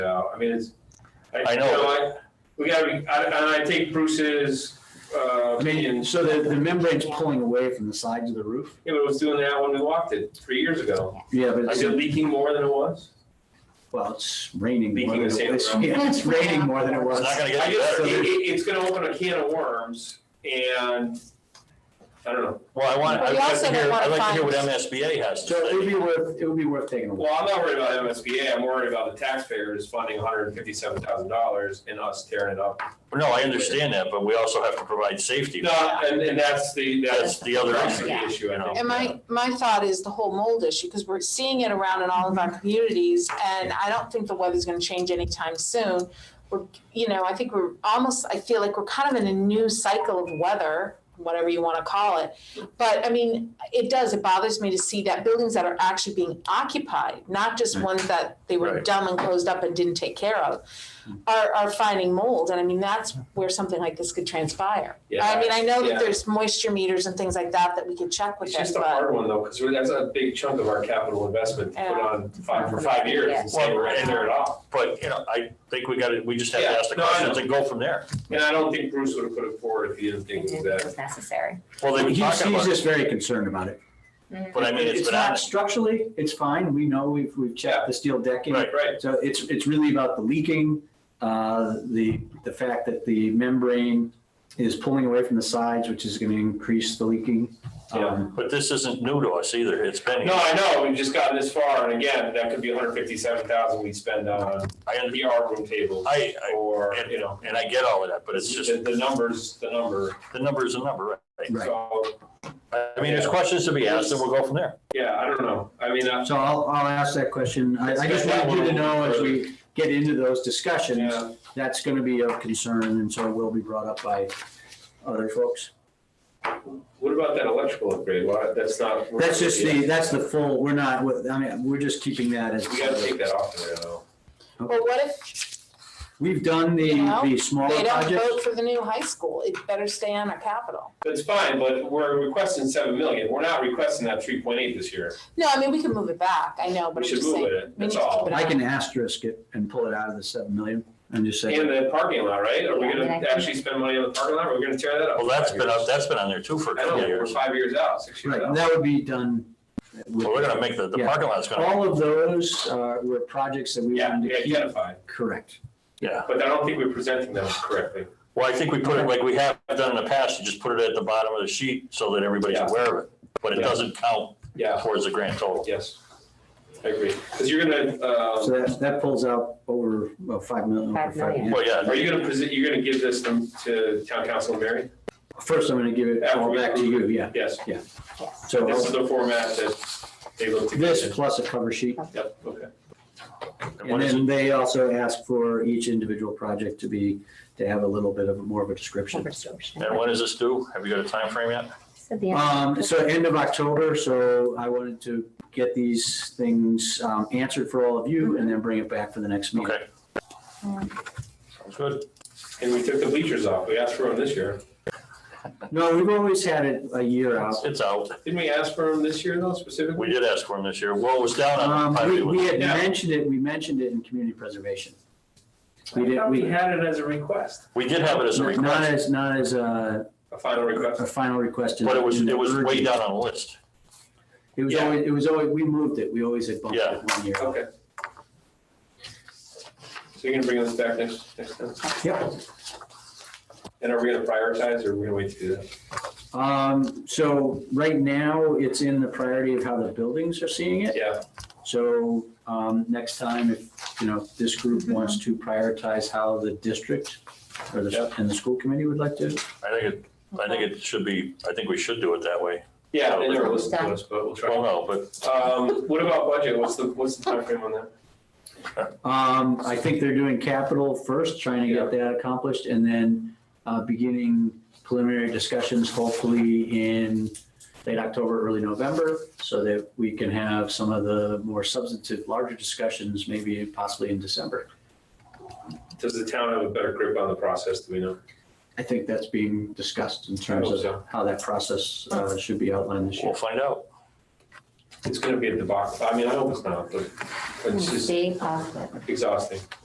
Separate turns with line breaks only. out. I mean, it's.
I know.
you I- We gotta be, I- and I take Bruce's uh, opinion,
So the, the membrane's pulling away from the sides of the roof?
Yeah, but it was doing that when we walked it three years ago.
Yeah, but
Is
it's,
it leaking more than it was?
well, it's raining.
Leaking
more than
the
it
same
was-
amount.
Yeah, it's raining more than it
It's
was.
not gonna
I
get any
just,
better.
it, it- it's gonna open a can of worms and, I don't know.
Well, I want,
But
I'd
we
like to
also don't
hear,
wanna
I'd like to hear what
find-
MSBA has to
So it would
say.
be worth, it would be worth taking a look.
Well, I'm not worried about MSBA. I'm worried about the taxpayers funding hundred and fifty-seven thousand dollars and us tearing it up.
No, I understand that, but we also have to provide safety.
No, and, and that's the,
That's
that's.
the other
that's
issue.
the Issue, I know.
And my, my thought is the whole mold issue, because we're seeing it around in all of our communities, and I don't think the weather's gonna change anytime soon. We're, you know, I think we're almost, I feel like we're kind of in a new cycle of weather, whatever you wanna call it. But I mean, it does, it bothers me to see that buildings that are actually being occupied, not just ones that they were
Right.
dumb and closed up and didn't take care of, are, are finding mold, and I mean, that's where something like this could transpire.
Yeah.
I mean, I know
Yeah.
that there's moisture meters and things like that that we could check with
It's
it,
just a
but.
hard one though, because that's a big chunk of our capital investment to put
Yeah.
on five, for five years and say we're gonna tear it off.
But, you know, I think we gotta, we just have to
Yeah,
ask the
no, I
questions
know.
and go from there.
And I don't think Bruce would have put it forward if he didn't think it was that.
It's necessary.
Well, they've been
He's,
talking
he's
about it,
just very concerned about it.
but I mean, it's been
not
out.
structurally, it's fine. We know we've, we've checked the steel decking.
Right.
Right,
So it's, it's really about the leaking, uh, the, the fact that the membrane is pulling away from the sides, which is going to increase the leaking.
Yeah.
Um,
But this isn't new to us either. It's been,
no,
here.
I know, we've just gotten this far, and again, that could be hundred fifty-seven thousand we spend on
I, under-
VR room tables
I, I,
or, you know.
and I get all of that, but it's just,
The, the number's the number,
the number is a number, right?
Right.
so,
I mean, there's questions to be asked and we'll go from there.
yeah, I don't know, I mean, I'm,
So I'll, I'll ask that question. I, I just want you to know as we get into those discussions,
yeah,
that's going to be of concern and so it will be brought up by other folks.
what about that electrical upgrade, why, that's not.
That's just the, that's the full, we're not, I mean, we're just keeping that as.
We gotta take that off there though.
Well, what if
We've done the, the smaller
they don't vote
projects.
for the new high school? It better stay on our capital.
That's fine, but we're requesting seven million, we're not requesting that three point eight this year,
No, I mean, we can move it back, I know,
we
but I'm
should
just
move
saying.
it,
we need
that's
to keep
all.
it
I can asterisk it and pull it out of the seven million and just say,
And the parking lot, right, are we
Yeah,
gonna
and I think-
actually spend money on the parking lot, or we're gonna tear that up?
Well, that's
Five
been,
years.
up. that's been on there too for a
I know,
couple of
we're
years.
five years out, six years
right,
out.
and that would be done. with-
Well, we're gonna make the, the
Yeah.
parking lot's gonna,
All of those uh, were projects that we
Yeah,
wanted
we
to keep.
identified,
Correct.
yeah.
but I don't think we're presenting them correctly.
Well, I think we put it like we have done in the past, you just put it at the bottom of the sheet so that everybody's
Yeah.
aware of it. But it
Yeah.
doesn't count
Yeah,
towards the grand total.
yes, I agree, because you're gonna, uh,
So that, that pulls out over, well, five million.
Five million.
Well, yeah,
are you gonna present, you're gonna give this to- to town council and Mary?
First, I'm gonna give it all back to you, yeah.
Yes,
So
this is
I'll-
the format that they looked to get
this
in.
plus a cover sheet.
Yep, okay.
and
And
what is
then
it?
they also ask for each individual project to be, to have a little bit of more of a description.
And when is this due? Have you got a time frame yet?
Um, so end of October, so I wanted to get these things, um, answered for all of you and then bring it back for the next meeting.
Okay. Sounds good.
And we took the bleachers off, we asked for them this year.
No, we've always had it a year out.
It's out.
Didn't we ask for them this year though specifically?
We did ask for them this year. Well, it was down on the
Um, we,
highway.
we
was-
had
Yeah.
mentioned it, we mentioned it in community preservation. We
I
did,
thought we
we,
had it as a request,
We did have it as a
not
request,
as, not as a,
a final request.
a final request. in-
but it was,
in the
it was way
urgent.
down on the list.
It was
Yeah.
always, it was always, we moved it, we always had bumped
Yeah.
it one year.
Okay. So you're gonna bring this back next, next time?
Yep.
And are we gonna prioritize or are we gonna wait to do that?
Um, so right now, it's in the priority of how the buildings are seeing it.
Yeah,
So um, next time, if, you know, if this group wants to prioritize how the district or the,
Yep.
and the school committee would like to,
I think it, I think it should be, I think we should do it that way.
yeah, they never listened to us, but we'll
Well,
try.
no, but
Um, what about budget? What's the, what's the timeframe on that?
um, I think they're doing capital first, trying to get that accomplished, and then uh, beginning preliminary discussions hopefully in late October, early November, so that we can have some of the more substantive, larger discussions, maybe possibly in December.
Does the town have a better grip on the process, do we know?
I think that's being discussed in terms
I hope so.
of how that process uh, should be outlined this year.
we'll find out.
It's gonna be a debacle, I mean, I hope it's not, but it's just
Stay off it.
exhausting.